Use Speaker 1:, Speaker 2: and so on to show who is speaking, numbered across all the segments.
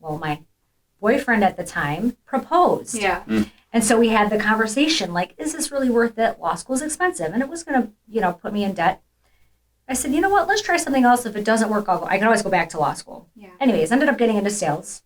Speaker 1: well, my boyfriend at the time proposed.
Speaker 2: Yeah.
Speaker 1: And so we had the conversation like, is this really worth it? Law school is expensive and it was going to, you know, put me in debt. I said, you know what? Let's try something else. If it doesn't work, I'll go. I can always go back to law school.
Speaker 2: Yeah.
Speaker 1: Anyways, ended up getting into sales.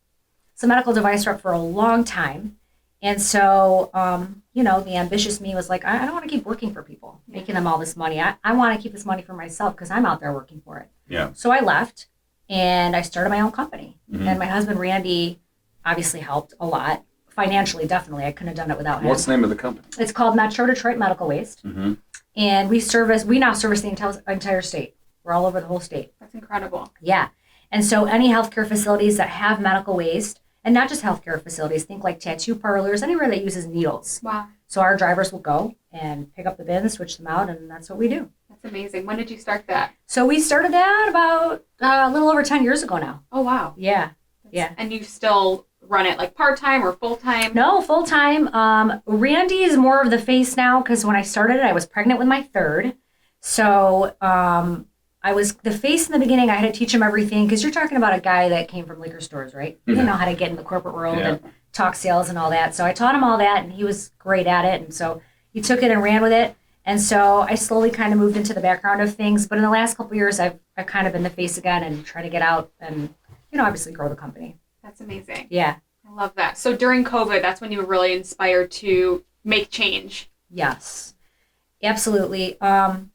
Speaker 1: So medical device rep for a long time. And so, um, you know, the ambitious me was like, I, I don't want to keep working for people,
Speaker 2: Yeah.
Speaker 1: making them all this money. I, I want to keep this money for myself because I'm out there working for it.
Speaker 3: Yeah.
Speaker 1: So I left and I started my own company.
Speaker 3: Mhm.
Speaker 1: And my husband, Randy, obviously helped a lot financially, definitely. I couldn't have done it without him.
Speaker 3: What's the name of the company?
Speaker 1: It's called Metro Detroit Medical Waste,
Speaker 3: Mm-hmm.
Speaker 1: and we service. We now service the entire entire state. We're all over the whole state.
Speaker 2: That's incredible.
Speaker 1: Yeah, and so any healthcare facilities that have medical waste, and not just healthcare facilities, think like tattoo parlors, anywhere that uses needles.
Speaker 2: Wow.
Speaker 1: So our drivers will go and pick up the bins, switch them out, and that's what we do.
Speaker 2: That's amazing. When did you start that?
Speaker 1: So we started that about uh, a little over ten years ago now.
Speaker 2: Oh, wow.
Speaker 1: Yeah.
Speaker 2: That's-
Speaker 1: Yeah.
Speaker 2: And you still run it like part time or full time?
Speaker 1: No, full time. Um, Randy is more of the face now because when I started it, I was pregnant with my third. So um, I was the face in the beginning. I had to teach him everything because you're talking about a guy that came from liquor stores, right? He didn't know how to get in the corporate world
Speaker 3: Yeah.
Speaker 1: and talk sales and all that. So I taught him all that, and he was great at it. And so he took it and ran with it. And so I slowly kind of moved into the background of things. But in the last couple of years, I've, I've kind of been the face again and try to get out and, you know, obviously grow the company.
Speaker 2: That's amazing.
Speaker 1: Yeah.
Speaker 2: I love that. So during COVID, that's when you were really inspired to make change.
Speaker 1: Yes, absolutely. Um,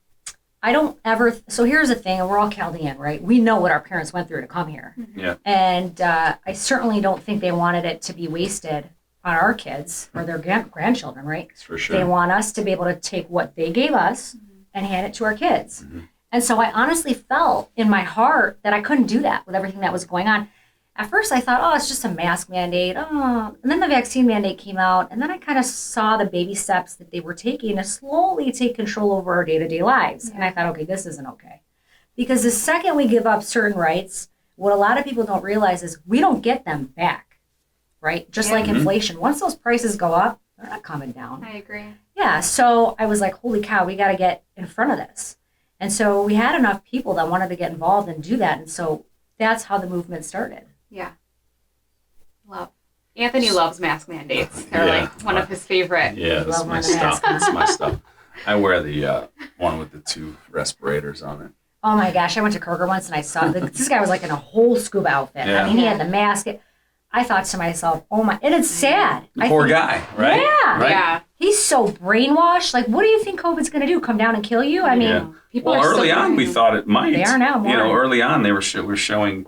Speaker 1: I don't ever. So here's the thing, and we're all Chaldean, right? We know what our parents went through to come here,
Speaker 3: Yeah.
Speaker 1: and uh, I certainly don't think they wanted it to be wasted on our kids or their gran- grandchildren, right?
Speaker 3: That's for
Speaker 1: They
Speaker 3: sure.
Speaker 1: want us to be able to take what they gave us and hand it to our kids.
Speaker 3: Mhm.
Speaker 1: And so I honestly felt in my heart that I couldn't do that with everything that was going on. At first, I thought, oh, it's just a mask mandate. Oh. And then the vaccine mandate came out. And then I kind of saw the baby steps that they were taking to slowly take control over our day to day lives. And I thought, okay, this isn't okay. Because the second we give up certain rights, what a lot of people don't realize is we don't get them back, right? Just
Speaker 2: Yeah.
Speaker 1: like
Speaker 3: Mhm.
Speaker 1: inflation. Once those prices go up, they're not coming down.
Speaker 2: I agree.
Speaker 1: Yeah, so I was like, holy cow, we got to get in front of this. And so we had enough people that wanted to get involved and do that. And so that's how the movement started.
Speaker 2: Yeah. Love. Anthony loves mask mandates. They're
Speaker 3: Yeah.
Speaker 2: like one of his favorite.
Speaker 3: Yeah, that's
Speaker 1: Love
Speaker 3: my
Speaker 1: one to
Speaker 3: stuff.
Speaker 1: ask.
Speaker 3: That's my stuff. I wear the uh, one with the two respirators on it.
Speaker 1: Oh my gosh, I went to Kroger once and I saw the, this guy was like in a whole scuba outfit.
Speaker 3: Yeah.
Speaker 1: I mean, he had the mask. I thought to myself, oh my, and it's sad.
Speaker 3: The
Speaker 1: I
Speaker 3: poor
Speaker 1: think-
Speaker 3: guy, right?
Speaker 1: Yeah.
Speaker 3: Right?
Speaker 2: Yeah.
Speaker 1: He's so brainwashed. Like, what do you think COVID's going to do? Come down and kill you? I mean,
Speaker 3: Yeah.
Speaker 2: People
Speaker 3: Well,
Speaker 2: are so
Speaker 3: early on, we
Speaker 2: worried.
Speaker 3: thought it might.
Speaker 1: They are now
Speaker 3: You know,
Speaker 1: more.
Speaker 3: early on, they were sho- were showing,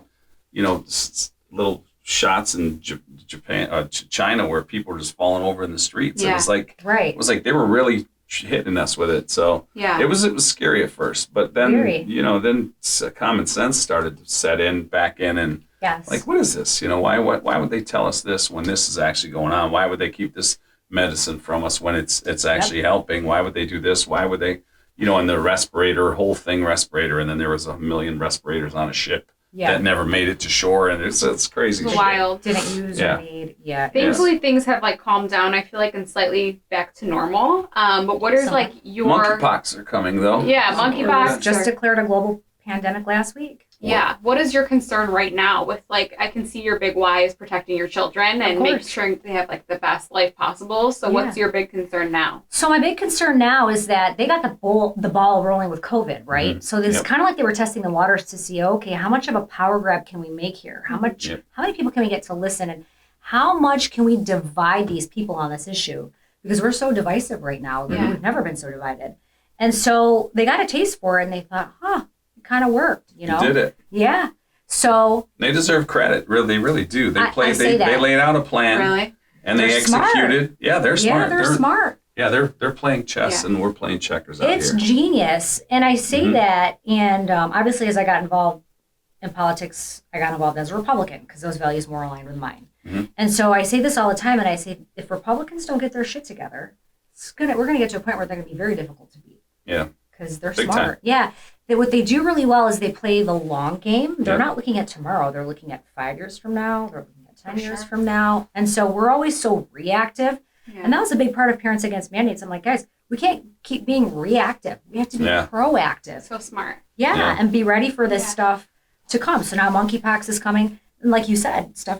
Speaker 3: you know, s- s- little shots in J- Japan, uh, Ch- China, where people were just falling over in the streets. It
Speaker 2: Yeah.
Speaker 3: was like it
Speaker 1: right.
Speaker 3: was like they were really hitting us with it. So
Speaker 2: Yeah.
Speaker 3: it was it was scary at first, but then
Speaker 1: Very.
Speaker 3: you know, then s- common sense started to set in back in, and
Speaker 1: Yes.
Speaker 3: like, what is this? You know, why why, why would they tell us this when this is actually going on? Why would they keep this medicine from us when it's it's actually helping? Why would they do this? Why would they? You know, and the respirator, whole thing respirator, and then there was a million respirators on a ship
Speaker 1: yeah.
Speaker 3: that never made it to shore, and it's it's crazy.
Speaker 2: It's
Speaker 3: shit.
Speaker 2: wild.
Speaker 1: Didn't use
Speaker 3: Yeah.
Speaker 1: or need. Yeah.
Speaker 3: Yes.
Speaker 2: Thankfully, things have like calmed down. I feel like and slightly back to normal. Um, but what is
Speaker 1: Some-
Speaker 2: like your
Speaker 3: Monkeypox are coming though.
Speaker 2: Yeah,
Speaker 3: So we're-
Speaker 2: monkeypox.
Speaker 1: It's Just declared a global pandemic last week.
Speaker 2: yeah? What is your concern right now with like I can see your big why is protecting your children and making
Speaker 1: course.
Speaker 2: sure they have like the best life possible. So what's your big concern now?
Speaker 1: So my big concern now is that they got the ball the ball rolling with COVID, right? So it's
Speaker 3: Mm-hmm. Yep.
Speaker 1: kind of like they were testing the waters to see, okay, how much of a power grab can we make here? How much?
Speaker 3: Yep.
Speaker 1: How many people can we get to listen, and how much can we divide these people on this issue? Because we're so divisive right now.
Speaker 2: Yeah.
Speaker 1: We've never been so divided, and so they got a taste for it, and they thought, huh, it kind of worked, you
Speaker 3: You
Speaker 1: know?
Speaker 3: did it.
Speaker 1: Yeah. So
Speaker 3: They deserve credit. Really, they really do. They
Speaker 1: I-
Speaker 3: played.
Speaker 1: I say
Speaker 3: they, they
Speaker 1: that.
Speaker 3: laid out a plan
Speaker 2: Really?
Speaker 3: and they
Speaker 1: They're smart.
Speaker 3: executed. Yeah, they're smart.
Speaker 1: yeah, they're, smart.
Speaker 3: Yeah, they're they're playing chess
Speaker 2: Yeah.
Speaker 3: and we're playing checkers out
Speaker 1: it's
Speaker 3: here.
Speaker 1: genius and i say
Speaker 3: Mhm.
Speaker 1: that and um, obviously as i got involved in politics i got involved as a republican because those values more aligned with mine
Speaker 3: Mhm.
Speaker 1: and so i say this all the time and i say if republicans don't get their shit together it's gonna we're gonna get to a point where they're gonna be very difficult to beat
Speaker 3: Yeah.
Speaker 1: because they're
Speaker 3: Big
Speaker 1: smart yeah that what they do really well is they play the long game they're
Speaker 3: Yeah.
Speaker 1: not looking at tomorrow they're looking at five years from now they're looking at ten
Speaker 2: For
Speaker 1: years
Speaker 2: sure.
Speaker 1: from now and so we're always so reactive
Speaker 2: Yeah.
Speaker 1: and that was a big part of Parents Against Mandates. I'm like, guys, we can't keep being reactive. We have to be
Speaker 3: Yeah.
Speaker 1: proactive.
Speaker 2: so smart.
Speaker 1: Yeah,
Speaker 3: Yeah.
Speaker 1: and be ready for this
Speaker 2: Yeah.
Speaker 1: stuff to come. So now monkeypox is coming. And like you said, stuff